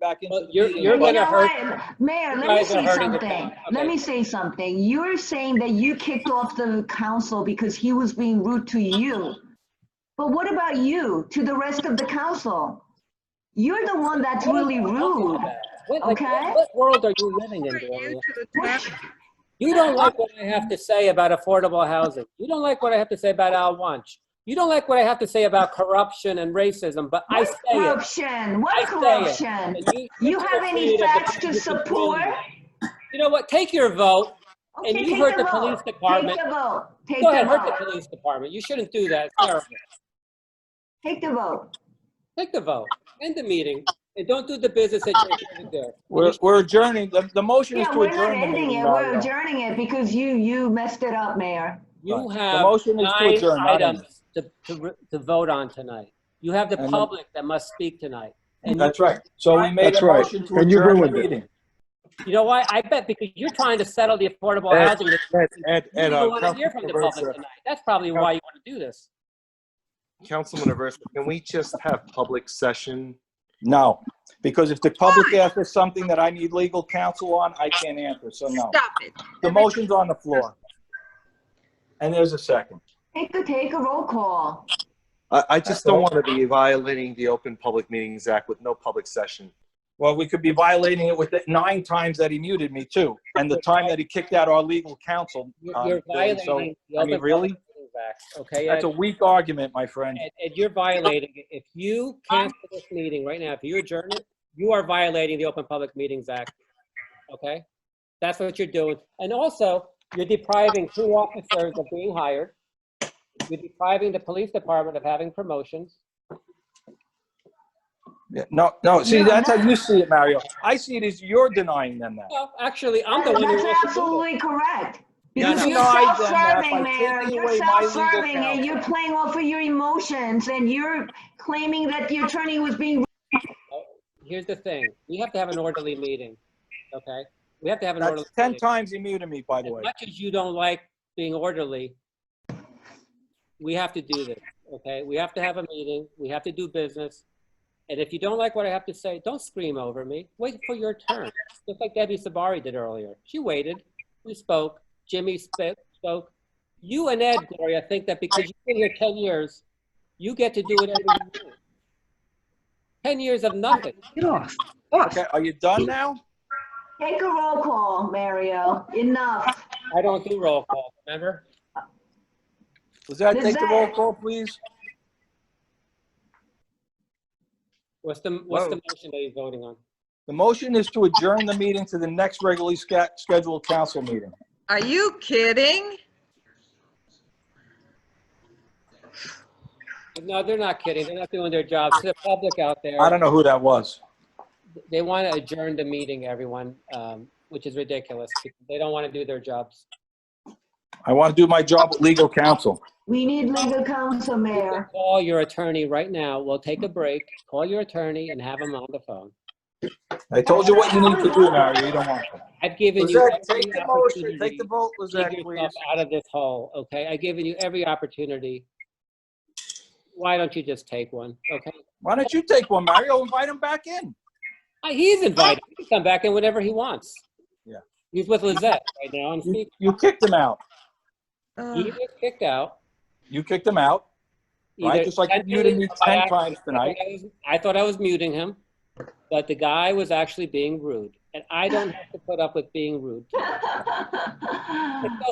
back into Well, the you're- meeting. you're But- gonna You know hurt- what? Mayor, you let me guys are say hurting the something. town. Let Okay. me say something. You're saying that you kicked off the council because he was being rude to you. But what about you to the rest of the council? You're the one that's really rude. What, like, Okay. what world are you living in, Gloria? You don't like what I have to say about affordable housing. You don't like what I have to say about Al Wunsch. You don't like what I have to say about corruption and racism, but I say What it. corruption? I What say corruption? it. And You you're have afraid any of the facts to police department. support? You know what? Take your vote. Okay, And you take hurt the vote. police department. Take the vote. Take Go ahead, the hurt the vote. police department. You shouldn't do that. It's terrible. Take the vote. Take the vote. End the meeting. And don't do the business that you're here to do. We're, we're adjourning. The, the motion is Yeah, to we're not adjourn the ending meeting, it. Mario. We're adjourning it because you, you messed it up, Mayor. You Right. The have motion is to nine adjourn, not end. items to, to, re- to vote on tonight. You have the And then- public that must speak tonight. And That's right. So we made That's a right. motion to And you adjourn agree the with it. meeting. you know why? I bet because you're trying to settle the affordable Ed, housing. that Ed, Ed, You Ed, don't uh, want to hear from the Councilman public Aversa- tonight. That's probably why you want to do this. Councilman Aversa, can we just have public session? No, because if the public asks something that I need legal counsel on, I can't answer, so no. Stop it. The motion's on the floor. And there's a second. Take a, take a roll call. I, I just don't want to be violating the Open Public Meetings Act with no public session. Well, we could be violating it with the nine times that he muted me too, and the time that he kicked out our legal counsel. You're um, you're during- so violating. the I mean, Open really? Public Meetings Act, Okay, Ed, That's a weak argument, my friend. and and you're violating, it. if you cancel this meeting right now, if you adjourn it, you are violating the Open Public Meetings Act. Okay? That's what you're doing. And also, you're depriving two officers of being hired. You're depriving the police department of having promotions. Yeah, No, no, see, Yeah, that's how you see it, Mario. I see it as you're denying them that. Well, actually, I'm the That- one who That's wants to do it. absolutely correct. Yeah, Because no. you're No, I done that by self-serving, Mayor. taking You're away my legal self-serving and counsel. you're playing off of your emotions and you're claiming that the attorney was being, Here's the thing, we have to have an orderly meeting, okay? We have to have an orderly. That's 10 meeting. times he muted me, by the way. As much as you don't like being orderly, we have to do this, okay? We have to have a meeting, we have to do business. And if you don't like what I have to say, don't scream over me. Wait for your turn, just like Debbie Sabari did earlier. She waited, we spoke, Jimmy sp- spoke. You and Ed, Gloria, think that because you've been here 10 years, you get to do whatever you want. 10 years of nothing. Get off. Off. Okay, are you done now? take a roll call, Mario. Enough. I don't do roll call, remember? Was that, Is take the roll that- call, please? What's the, what's the motion that you're voting on? The motion is to adjourn the meeting to the next regularly sca- scheduled council meeting. Are you kidding? No, they're not kidding. They're not doing their jobs. To the public out there, I don't know who that was. they want to adjourn the meeting, everyone, um, which is ridiculous. They don't want to do their jobs. I want to do my job with legal counsel. We need legal counsel, Mayor. Call your attorney right now. We'll take a break. Call your attorney and have him on the phone. I told you what you need to do, Mario, you don't want to. I've given you Lizette, every take the motion, take opportunity the vote, to dig Lizette, yourself please. out of this hole, okay? I've given you every opportunity. Why don't you just take one, okay? Why don't you take one, Mario? Invite him back in. Uh, He's invited. He can come back in whenever he wants. Yeah. He's with Lizette right now. on You- speaker. You kicked him out. He Ugh. was kicked out. You kicked him out, right? either Just like you muted intentionally me or by 10 accident. I times tonight. thought I was- I thought I was muting him, but the guy was actually being rude, and I don't have to put up with being rude.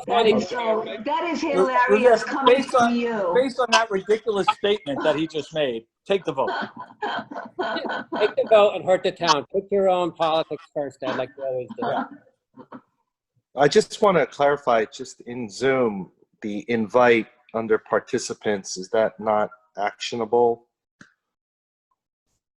That is so, that is Yes, hilarious coming based from on- you. Based on that ridiculous statement that he just made, take the vote. Take the vote and hurt the town. Put your own politics first, Ed, like you always do. I just want to clarify, just in Zoom, the invite under participants, is that not actionable?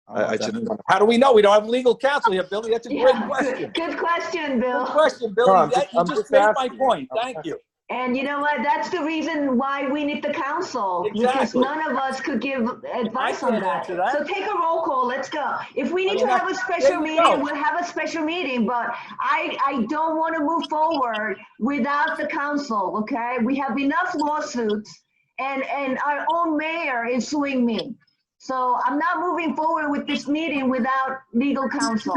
I- I just- How do we know? We don't have legal counsel here, Billy. That's a Yeah, great good- question. Good question, Good Bill. question, Billy. No, I'm That- just- You I'm just just made my asking. point. Thank you. And you know what? That's the reason why we need the council, because Exactly. none of us could give advice on can't that. answer that. So take a roll call, let's go. If we need to I'm not- have a special There you go. meeting, we'll have a special meeting, but I, I don't want to move forward without the council, okay? We have enough lawsuits and, and our own mayor is suing me. So I'm not moving forward with this meeting without legal counsel.